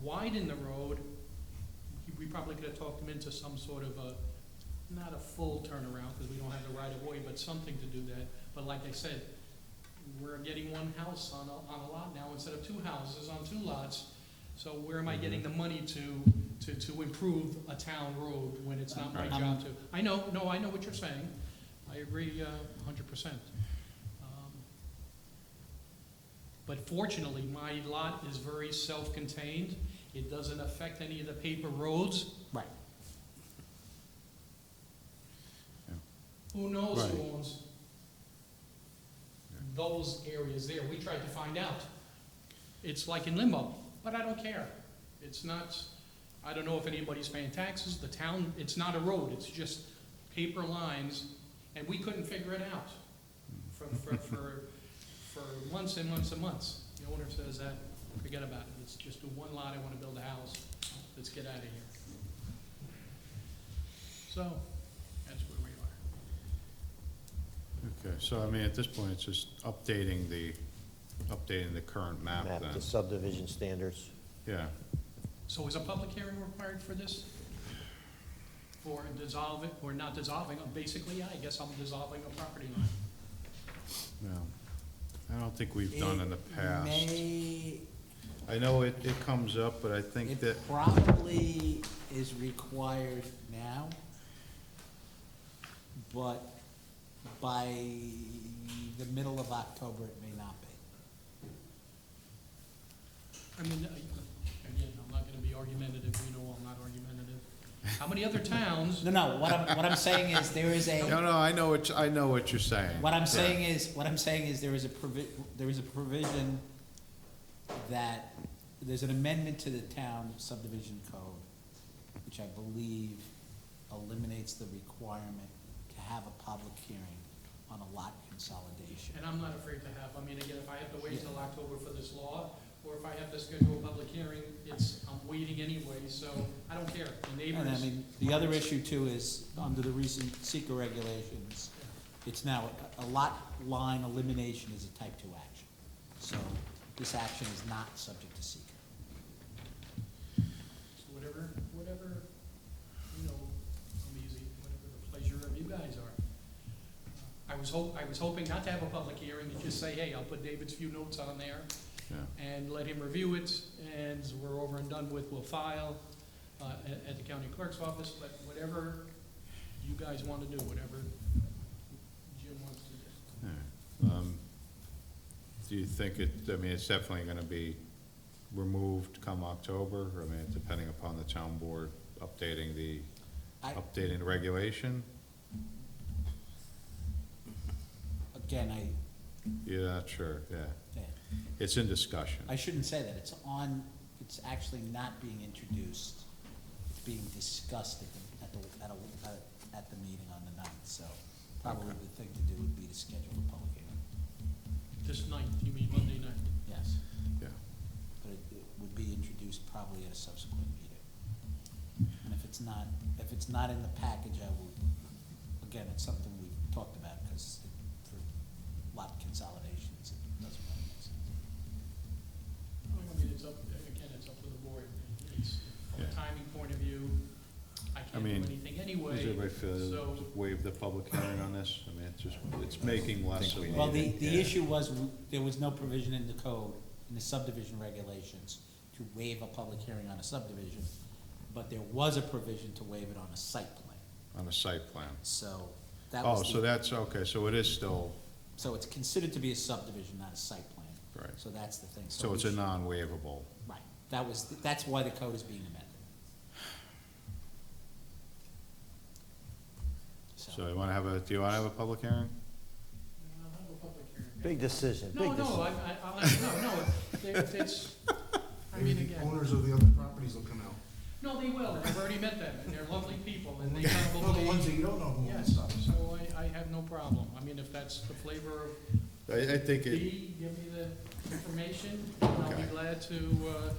widen the road, we- we probably could have talked them into some sort of a, not a full turnaround, because we don't have the right of way, but something to do that. But like I said, we're getting one house on a, on a lot now instead of two houses on two lots. So where am I getting the money to, to, to improve a town road when it's not my Right. job to? I know, no, I know what you're saying. I agree uh, a hundred percent. Um, But fortunately, my lot is very self-contained. It doesn't affect any of the paper roads. Right. Yeah. Who knows who Right. owns Yeah. those areas there? We tried to find out. It's like in limbo, but I don't care. It's not, I don't know if anybody's paying taxes, the town, it's not a road, it's just paper lines, and we couldn't figure it out Hmm. for, for, for, for months and months and months. The owner says that, forget about it, let's just do one lot, I wanna build a house, let's get out of here. So, that's where we are. Okay, so I mean, at this point, it's just updating the, updating the current map map then. the subdivision standards. Yeah, So is a public hearing required for this? For dissolving, or not dissolving, uh, basically, I guess I'm dissolving a property line. well, I don't think we've done in the It past. may- I know it, it comes up, but I think that, It probably is required now, but by the middle of October, it may not be. I mean, I- again, I'm not gonna be argumentative, you know I'm not argumentative. How many other towns, No, no, what I'm, what I'm saying is, there is no, a, no, I know what, you- I know what you're saying. what I'm Yeah. saying is, what I'm saying is, there is a provi, there is a provision that, there's an amendment to the town subdivision code, which I believe eliminates the requirement to have a public hearing on a lot consolidation. and I'm not afraid to have, I mean, again, if I have to wait till October for this law, or if I have to schedule a public hearing, it's, I'm waiting anyway, so I don't care, the And I neighbors. mean, the other issue too is, under the recent seeker regulations, it's now, a lot line elimination is a type two action. So this action is not subject to seeker. So Whatever, whatever, you know, I'm easy, whatever the pleasure of you guys are. I was hope, I was hoping not to have a public hearing and just say, hey, I'll put David's few notes on there Yeah, and let him review it and we're over and done with, we'll file, uh, at, at the county clerk's office, but whatever you guys want to do, whatever Jim wants to do. all right. Um, Do you think it, I mean, it's definitely gonna be removed come October, I mean, depending upon the town board updating the, I, updating the regulation? again, I, You're not sure, yeah. yeah, It's in discussion. I shouldn't say that, it's on, it's actually not being introduced, it's being discussed at the, at the, at a, at the meeting on the ninth, so probably Okay. the thing to do would be to schedule a public hearing, This night, you mean Monday night? yes. Yeah. but it it would be introduced probably at a subsequent meeting. And if it's not, if it's not in the package, I will, again, it's something we've talked about, because for lot consolidations, it doesn't really make sense. I mean, it's up, again, it's up to the board. It's, from a Yeah. timing point of view, I can't mean, do anything anyway. Does everybody feel, So- just waive the public hearing on this? I mean, it's just, it's making less of. a- Well, the, the Yeah. issue was, w- there was no provision in the code, in the subdivision regulations, to waive a public hearing on a subdivision, but there was a provision to waive it on a site plan, On the site plan. so that was Oh, the. so that's, okay, so it is still, So it's considered to be a subdivision, not a site plan. Right. So that's the thing. so we it's a should- non-waivable. Right, that was, that's why the code is being amended. So you wanna have a, do you wanna have a public hearing? I'll have a public hearing. Big decision, No, big no, I, decision. I, I'll have, no, no, it- it's, I mean, Maybe the again, owners of the other properties will come out. no, they will, I've already met them, and they're lovely people, and they No, the ones that probably, you don't know who owns yes, stuff. so I, I have no problem. I mean, if that's the flavor of I, I think it, B, give me the information, and I'll be Okay. glad to, uh.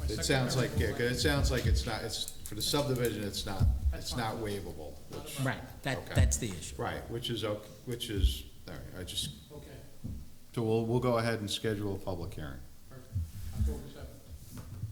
my it sounds secretary like, yeah, will 'cause it sounds like it's not, it's, for the subdivision, it's not, That's it's fine. not waivable. Not a which- problem. Right, that, Okay. that's the issue. Right, which is, ok- which is, all right, I just, Okay, so we'll, we'll go ahead and schedule a public hearing.